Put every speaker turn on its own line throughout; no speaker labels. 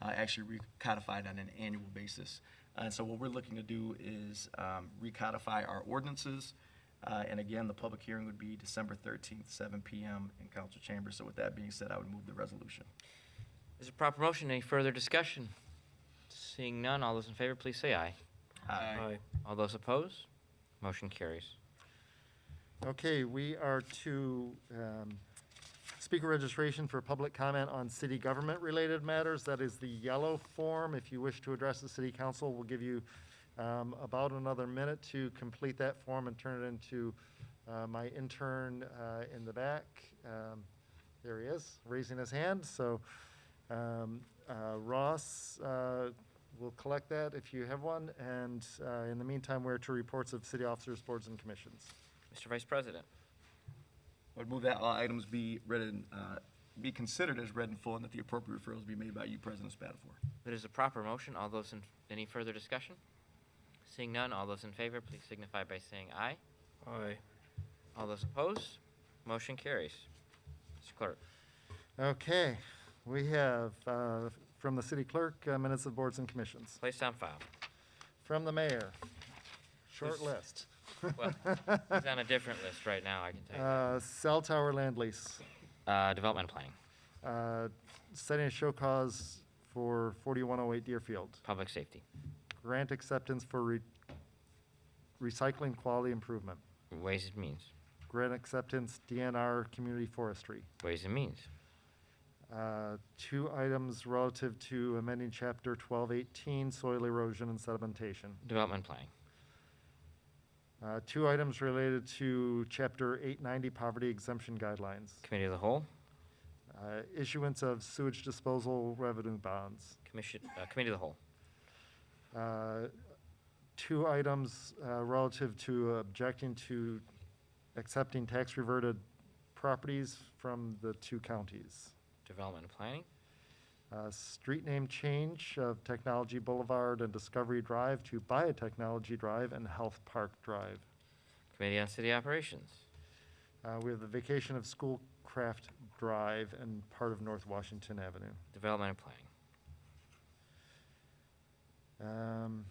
uh, actually recodified on an annual basis. Uh, And so what we're looking to do is um, recodify our ordinances. Uh, And again, the public hearing would be December 13th, 7 PM in council chambers. So with that being said, I would move the resolution.
Is it proper motion? Any further discussion? Seeing none, all those in favor, please say aye.
Uh,
All those opposed? Motion carries.
Okay, we are to um, speaker registration for public comment on city government-related matters. That is the yellow form. If you wish to address the city council, we'll give you um, about another minute to complete that form and turn it into uh, my intern uh, in the back. Um, There he is, raising his hand. So um, uh, Ross uh, will collect that if you have one. And uh, in the meantime, we're to reports of city officers, boards, and commissions.
Mr. Vice President,
I would move that all items be read and, be considered as read in full and that the appropriate referrals be made by you, President Spatafor.
it is a proper motion. All those in, any further discussion? Seeing none, all those in favor, please signify by saying aye.
Aye.
All those opposed? Motion carries. Mr. Clerk,
Okay, we have, uh, from the city clerk, uh, minutes of boards and commissions.
place on file.
From the mayor, short
Who's-
list.
Well, He's on a different list right now, I can tell you. that.
Uh, Cell tower land lease,
Uh, development planning,
uh, setting a show cause for 4108 Deerfield,
public safety,
grant acceptance for re- recycling quality improvement,
ways and means,
grant acceptance DNR community forestry.
ways and means,
Uh, Two items relative to amending chapter 1218 soil erosion and sedimentation.
development planning,
Uh, Two items related to Chapter 890 Poverty Exemption Guidelines.
committee of the whole,
Uh, Issuance of sewage disposal revenue bonds.
commission, uh, committee of the whole,
Uh, Two items uh, relative to objecting to accepting tax-reverted properties from the two counties.
development planning,
Uh, Street name change of Technology Boulevard and Discovery Drive to Biotechnology Drive and Health Park Drive.
committee on city operations,
Uh, We have the vacation of Schoolcraft Drive and part of North Washington Avenue.
development and planning,
Um,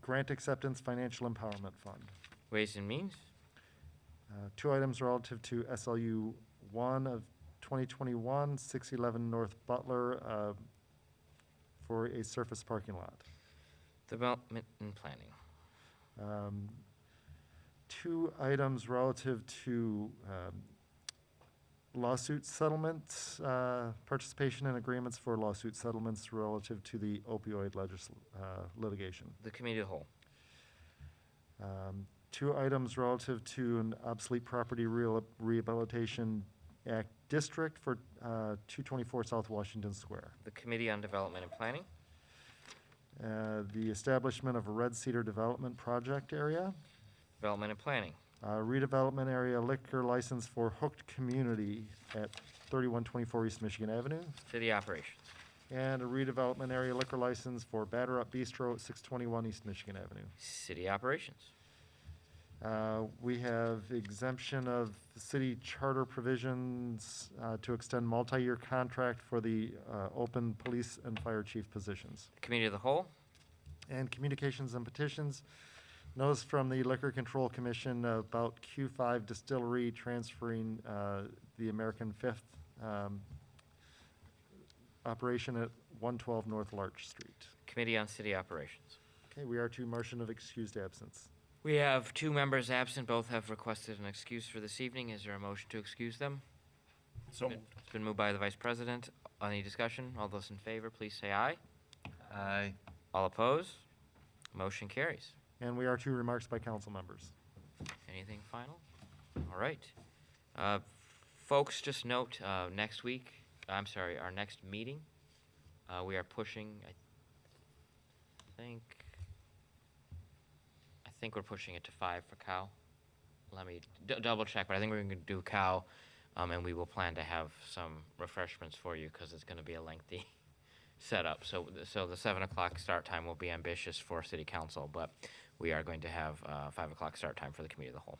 Grant Acceptance Financial Empowerment Fund.
ways and means,
Uh, Two items relative to SLU 1 of 2021, 611 North Butler uh, for a surface parking lot.
development and planning,
Um, Two items relative to um, lawsuit settlements, uh, participation in agreements for lawsuit settlements relative to the opioid legisl- uh, litigation.
the committee of the whole,
Um, Two items relative to an obsolete property real- rehabilitation act district for uh, 224 South Washington Square.
the committee on development and planning,
Uh, The establishment of a Red Cedar Development Project area.
development and planning,
Uh, redevelopment area liquor license for Hooked Community at 3124 East Michigan Avenue,
city operations,
and a redevelopment area liquor license for Batter Up Bistro at 621 East Michigan Avenue.
city operations,
Uh, We have exemption of city charter provisions uh, to extend multi-year contract for the uh, open police and fire chief positions.
the committee of the whole,
and communications and petitions. Notice from the Liquor Control Commission about Q5 Distillery transferring uh, the American Fifth um, operation at 112 North Larch Street.
committee on city operations.
Okay, we are to motion of excused absence.
We have two members absent, both have requested an excuse for this evening. Is there a motion to excuse them?
So
Been- It's been moved by the vice president. Any discussion? All those in favor, please say aye.
Aye.
All opposed? Motion carries.
And we are to remarks by council members.
Anything final? All right. Uh, Folks, just note, uh, next week, I'm sorry, our next meeting, uh, we are pushing, I think, I think we're pushing it to five for cow. Let me d- double check, but I think we're gonna do cow, um, and we will plan to have some refreshments for you, because it's gonna be a lengthy setup. So, th- so the seven o'clock start time will be ambitious for city council, but we are going to have, uh, five o'clock start time for the committee of the whole.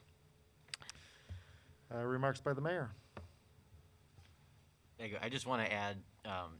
Uh, Remarks by the mayor.
I just want to add, um,